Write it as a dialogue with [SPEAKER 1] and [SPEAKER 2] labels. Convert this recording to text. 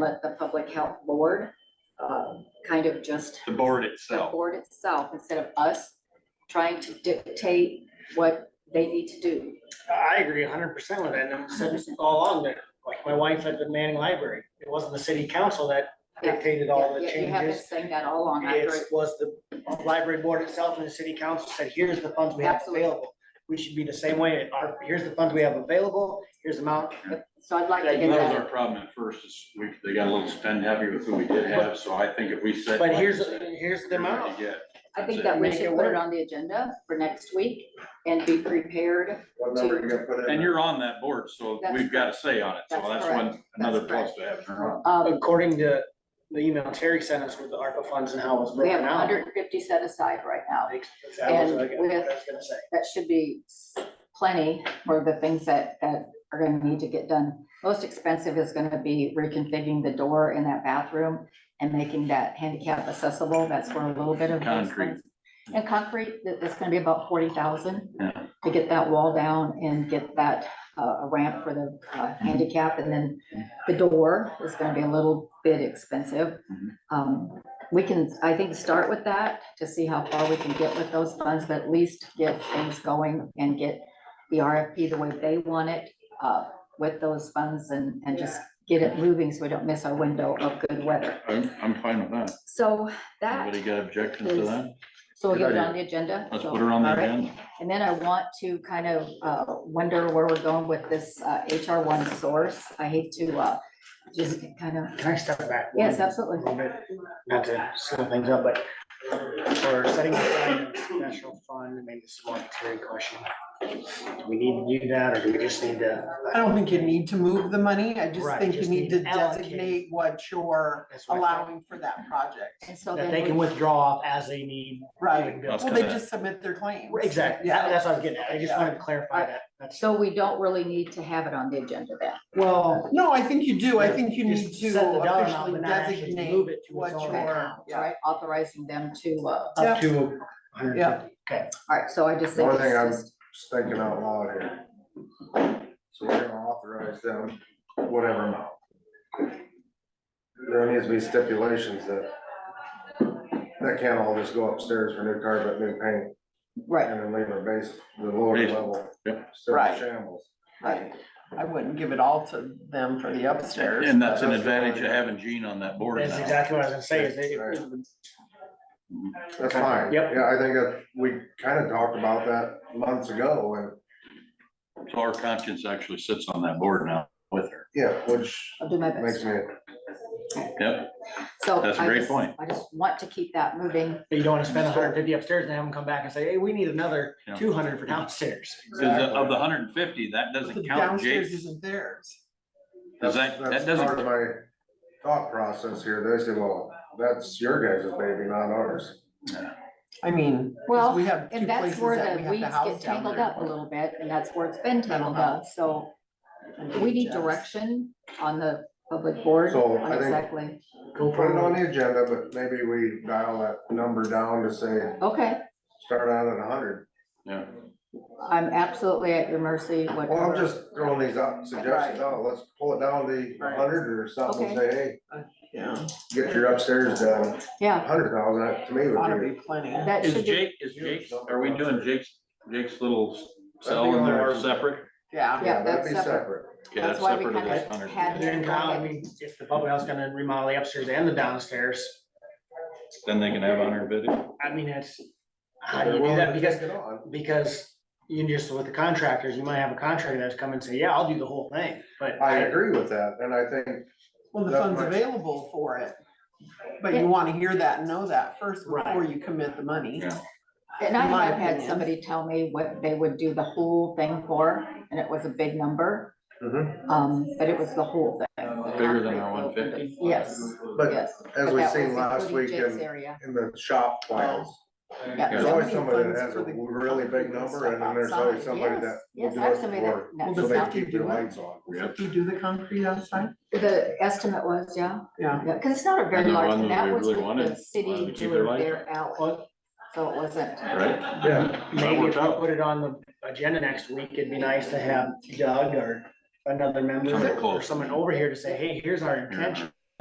[SPEAKER 1] let the public health board, um, kind of just
[SPEAKER 2] the board
[SPEAKER 1] the
[SPEAKER 2] itself.
[SPEAKER 1] board itself, instead of us trying to dictate what they need to do.
[SPEAKER 3] I agree hundred percent with that, and I'm saying this all along there, like my wife at the Manning Library, it wasn't the city council that dictated all the
[SPEAKER 1] Yeah, You have been
[SPEAKER 3] changes.
[SPEAKER 1] saying that all along, I
[SPEAKER 3] It was the library board itself and the city council said, here's the funds we have
[SPEAKER 1] Absolutely.
[SPEAKER 3] available. We should be the same way, Our- here's the funds we have available, here's the amount,
[SPEAKER 1] so I'd like to
[SPEAKER 2] That
[SPEAKER 1] get
[SPEAKER 2] was our
[SPEAKER 1] that,
[SPEAKER 2] problem at first, is we, they got a little spend heavy with who we did have, so I think if we said.
[SPEAKER 3] but here's,
[SPEAKER 2] like you said,
[SPEAKER 3] here's the
[SPEAKER 2] you're gonna
[SPEAKER 3] amount.
[SPEAKER 2] get
[SPEAKER 1] I think
[SPEAKER 2] that's
[SPEAKER 1] that we
[SPEAKER 3] Make
[SPEAKER 1] should
[SPEAKER 3] it
[SPEAKER 1] put it
[SPEAKER 3] work.
[SPEAKER 1] on the agenda for next week and be prepared.
[SPEAKER 4] What number you gonna put in?
[SPEAKER 2] And you're on that board, so
[SPEAKER 1] That's
[SPEAKER 2] we've got a say on it, so
[SPEAKER 1] That's
[SPEAKER 2] that's
[SPEAKER 1] correct.
[SPEAKER 2] one, another
[SPEAKER 1] That's
[SPEAKER 2] plus to have turned on.
[SPEAKER 1] Um,
[SPEAKER 3] According to the email Terry sent us with the ARPA funds and how it was
[SPEAKER 1] we have
[SPEAKER 3] broken out.
[SPEAKER 1] hundred and fifty set aside right now.
[SPEAKER 3] That was what I
[SPEAKER 1] and with-
[SPEAKER 3] what I was gonna say.
[SPEAKER 1] That should be plenty for the things that, that are gonna need to get done. Most expensive is gonna be reconfiguring the door in that bathroom and making that handicap accessible. That's where a little bit of. the
[SPEAKER 2] Concrete.
[SPEAKER 1] expense- And concrete, that, that's gonna be about forty thousand
[SPEAKER 2] Yeah.
[SPEAKER 1] to get that wall down and get that, uh, a ramp for the uh, handicap. And then the door is gonna be a little bit expensive.
[SPEAKER 2] Mhm.
[SPEAKER 1] Um, we can, I think, start with that to see how far we can get with those funds, but at least get things going and get the RFP the way they want it, uh, with those funds and, and just get it moving so we don't miss our window of good weather.
[SPEAKER 2] I'm, I'm fine with that.
[SPEAKER 1] So that,
[SPEAKER 2] Anybody got objections to
[SPEAKER 1] is-
[SPEAKER 2] that?
[SPEAKER 1] so we'll
[SPEAKER 2] Good
[SPEAKER 1] get it
[SPEAKER 2] idea.
[SPEAKER 1] on the agenda.
[SPEAKER 2] Let's
[SPEAKER 1] so-
[SPEAKER 2] put her on the
[SPEAKER 1] all right.
[SPEAKER 2] agenda.
[SPEAKER 1] And then I want to kind of uh, wonder where we're going with this uh, HR one source. I hate to uh, just kind of,
[SPEAKER 3] Can I step back? one
[SPEAKER 1] yes, absolutely.
[SPEAKER 3] little bit? Not to slow things up, but for setting aside a special fund, maybe this is more of a Terry question. Do we need to do that, or do we just need to,
[SPEAKER 5] I don't think you need to move the money, I just
[SPEAKER 3] Right,
[SPEAKER 5] think you
[SPEAKER 3] just
[SPEAKER 5] need to
[SPEAKER 3] need to allocate.
[SPEAKER 5] designate what you're
[SPEAKER 3] that's what I thought,
[SPEAKER 5] allowing for that project,
[SPEAKER 1] And so
[SPEAKER 3] that
[SPEAKER 1] then.
[SPEAKER 3] they can
[SPEAKER 1] we-
[SPEAKER 3] withdraw off as they need?
[SPEAKER 5] right?
[SPEAKER 2] That's
[SPEAKER 5] Well, they
[SPEAKER 2] kinda-
[SPEAKER 5] just submit their claims.
[SPEAKER 3] Exactly, that- that's what I was getting at, I just wanted to clarify
[SPEAKER 1] Right.
[SPEAKER 3] that, that's,
[SPEAKER 1] So we don't really need to have it on the agenda then.
[SPEAKER 3] well,
[SPEAKER 5] No, I think you do, I think you need
[SPEAKER 3] just
[SPEAKER 5] to
[SPEAKER 3] set the dollar amount,
[SPEAKER 5] officially
[SPEAKER 3] but not actually
[SPEAKER 5] designate
[SPEAKER 3] move it to
[SPEAKER 5] what
[SPEAKER 3] its own
[SPEAKER 5] your,
[SPEAKER 3] account.
[SPEAKER 5] yeah,
[SPEAKER 1] Right, authorizing them to, uh, all
[SPEAKER 3] Up to hundred and
[SPEAKER 5] Yeah.
[SPEAKER 3] fifty, okay,
[SPEAKER 1] right, so I just think
[SPEAKER 4] One
[SPEAKER 1] it's
[SPEAKER 4] thing I'm-
[SPEAKER 1] just,
[SPEAKER 4] Just thinking out loud here. So we're gonna authorize them whatever amount. There needs to be stipulations that that can't all just go upstairs for new carpet, new paint,
[SPEAKER 1] right,
[SPEAKER 4] and then leave our base, the lower
[SPEAKER 2] Base,
[SPEAKER 4] level.
[SPEAKER 2] yep.
[SPEAKER 4] still in
[SPEAKER 5] Right.
[SPEAKER 4] Shambles.
[SPEAKER 5] right, I wouldn't give it all to them for the upstairs.
[SPEAKER 2] And that's an advantage of having Gene on that board
[SPEAKER 3] that's
[SPEAKER 2] now.
[SPEAKER 3] exactly what I was gonna say, is they,
[SPEAKER 4] Right.
[SPEAKER 2] Mhm.
[SPEAKER 4] That's fine.
[SPEAKER 3] Yep.
[SPEAKER 4] Yeah, I think that we kind of talked about that months ago and,
[SPEAKER 2] So our conscience actually sits on that board now with her.
[SPEAKER 4] yeah, which
[SPEAKER 1] I'll do my
[SPEAKER 4] makes
[SPEAKER 1] best.
[SPEAKER 4] me,
[SPEAKER 2] Yep,
[SPEAKER 1] So.
[SPEAKER 2] That's a
[SPEAKER 1] I
[SPEAKER 2] great
[SPEAKER 1] just-
[SPEAKER 2] point.
[SPEAKER 1] I just want to keep that moving.
[SPEAKER 3] but you don't wanna spend hundred and fifty upstairs and have them come back and say, hey, we need another
[SPEAKER 2] Yeah.
[SPEAKER 3] two hundred for downstairs.
[SPEAKER 2] 'Cause of the hundred and fifty, that
[SPEAKER 5] The
[SPEAKER 2] doesn't count
[SPEAKER 5] downstairs
[SPEAKER 2] Jake's.
[SPEAKER 5] isn't theirs.
[SPEAKER 2] Does
[SPEAKER 4] that's,
[SPEAKER 2] that, that
[SPEAKER 4] that's
[SPEAKER 2] doesn't,
[SPEAKER 4] part of my thought process here. They say, well, that's your guys' baby, not ours.
[SPEAKER 5] I mean, 'cause
[SPEAKER 1] Well,
[SPEAKER 5] we have two
[SPEAKER 1] And that's
[SPEAKER 5] places
[SPEAKER 1] where
[SPEAKER 5] that
[SPEAKER 1] the
[SPEAKER 5] we have
[SPEAKER 1] weeds
[SPEAKER 5] to
[SPEAKER 1] get
[SPEAKER 5] house down
[SPEAKER 1] tangled
[SPEAKER 5] there.
[SPEAKER 1] up a little bit, and that's where it's been tangled
[SPEAKER 5] Uh-huh.
[SPEAKER 1] up, so we need direction on the public board,
[SPEAKER 4] So, I
[SPEAKER 1] on
[SPEAKER 4] think-
[SPEAKER 1] exactly,
[SPEAKER 3] Go
[SPEAKER 4] Put it
[SPEAKER 3] for
[SPEAKER 4] on
[SPEAKER 3] it.
[SPEAKER 4] the agenda, but maybe we dial that number down to say,
[SPEAKER 1] okay,
[SPEAKER 4] start out at a hundred.
[SPEAKER 2] yeah.
[SPEAKER 1] I'm absolutely at your mercy,
[SPEAKER 4] Well, I'm
[SPEAKER 1] whatever.
[SPEAKER 4] just throwing these out, suggestions out. Let's pull it down to a hundred or something. Say, hey,
[SPEAKER 5] Yeah,
[SPEAKER 4] get your upstairs done.
[SPEAKER 1] Yeah,
[SPEAKER 4] Hundred thousand, to me
[SPEAKER 5] ought to
[SPEAKER 4] would be.
[SPEAKER 5] be plenty.
[SPEAKER 1] that
[SPEAKER 2] Is
[SPEAKER 1] should be,
[SPEAKER 2] Jake, is Jake, are we doing Jake's, Jake's little cell
[SPEAKER 4] That'd be
[SPEAKER 2] in there
[SPEAKER 4] on our-
[SPEAKER 2] separate?
[SPEAKER 5] Yeah,
[SPEAKER 1] Yeah,
[SPEAKER 4] that'd
[SPEAKER 1] that's
[SPEAKER 4] be
[SPEAKER 1] separate.
[SPEAKER 2] Okay,
[SPEAKER 1] That's why we
[SPEAKER 2] separate of
[SPEAKER 1] kinda
[SPEAKER 2] this 100.
[SPEAKER 1] had-
[SPEAKER 3] And then now, I mean, if the public house gonna remodel the upstairs and the downstairs,
[SPEAKER 2] Then they can have hundred fifty.
[SPEAKER 3] I mean, it's, how do Ah, you
[SPEAKER 4] They're
[SPEAKER 3] do
[SPEAKER 4] willing
[SPEAKER 3] that?
[SPEAKER 4] to
[SPEAKER 3] Because,
[SPEAKER 4] take it on.
[SPEAKER 3] because you just, with the contractors, you might have a contractor that's come and say, yeah, I'll do the whole thing, but.
[SPEAKER 4] I agree with that, and I think,
[SPEAKER 5] Well, the
[SPEAKER 4] That
[SPEAKER 5] fund's
[SPEAKER 4] much.
[SPEAKER 5] available for it, but
[SPEAKER 1] Yeah.
[SPEAKER 5] you wanna hear that, and know that first
[SPEAKER 3] Right.
[SPEAKER 5] before you commit the money.
[SPEAKER 2] Yeah.
[SPEAKER 1] and I
[SPEAKER 5] in my
[SPEAKER 1] have had
[SPEAKER 5] opinion.
[SPEAKER 1] somebody tell me what they would do the whole thing for, and it was a big number,
[SPEAKER 4] mhm.
[SPEAKER 1] um, but it was the whole thing.
[SPEAKER 2] Bigger than our one fifty?
[SPEAKER 1] Yes,
[SPEAKER 4] but
[SPEAKER 1] yes.
[SPEAKER 4] as
[SPEAKER 1] but
[SPEAKER 4] we
[SPEAKER 1] that
[SPEAKER 4] seen
[SPEAKER 1] was
[SPEAKER 4] last
[SPEAKER 1] including
[SPEAKER 4] week
[SPEAKER 1] Jake's
[SPEAKER 4] in,
[SPEAKER 1] Area,
[SPEAKER 4] in the shop files,
[SPEAKER 1] yeah.
[SPEAKER 4] there's
[SPEAKER 5] Yeah. Somebody
[SPEAKER 4] always somebody that
[SPEAKER 5] funds
[SPEAKER 4] has a
[SPEAKER 5] for the
[SPEAKER 4] really big
[SPEAKER 5] concrete and
[SPEAKER 4] number,
[SPEAKER 5] stuff
[SPEAKER 4] and then there's always
[SPEAKER 5] outside,
[SPEAKER 4] somebody
[SPEAKER 1] yes,
[SPEAKER 4] that will
[SPEAKER 1] yes,
[SPEAKER 4] do
[SPEAKER 1] I have
[SPEAKER 4] it
[SPEAKER 1] somebody
[SPEAKER 4] for,
[SPEAKER 1] that-
[SPEAKER 5] Well,
[SPEAKER 4] so
[SPEAKER 5] does
[SPEAKER 4] they
[SPEAKER 5] that
[SPEAKER 4] keep
[SPEAKER 5] do
[SPEAKER 4] their
[SPEAKER 5] it?
[SPEAKER 4] lights on.
[SPEAKER 2] Yep.
[SPEAKER 5] You do the concrete outside?
[SPEAKER 1] The estimate was, yeah,
[SPEAKER 5] Yeah,
[SPEAKER 1] yeah, cause it's not a very
[SPEAKER 2] And the
[SPEAKER 1] large,
[SPEAKER 2] one
[SPEAKER 1] and that
[SPEAKER 2] that we
[SPEAKER 1] was
[SPEAKER 2] really
[SPEAKER 1] with the
[SPEAKER 2] wanted wanted
[SPEAKER 1] city
[SPEAKER 2] to keep their
[SPEAKER 1] doing
[SPEAKER 2] light
[SPEAKER 1] their alley,
[SPEAKER 3] Well,
[SPEAKER 1] so it wasn't.
[SPEAKER 2] Right?
[SPEAKER 4] Yeah,
[SPEAKER 3] Maybe if
[SPEAKER 2] worked
[SPEAKER 3] I
[SPEAKER 2] out.
[SPEAKER 3] put it on the agenda next week, it'd be nice to have Doug or another member
[SPEAKER 2] Somebody
[SPEAKER 3] or
[SPEAKER 2] close.
[SPEAKER 3] someone over here to say, hey, here's our intention.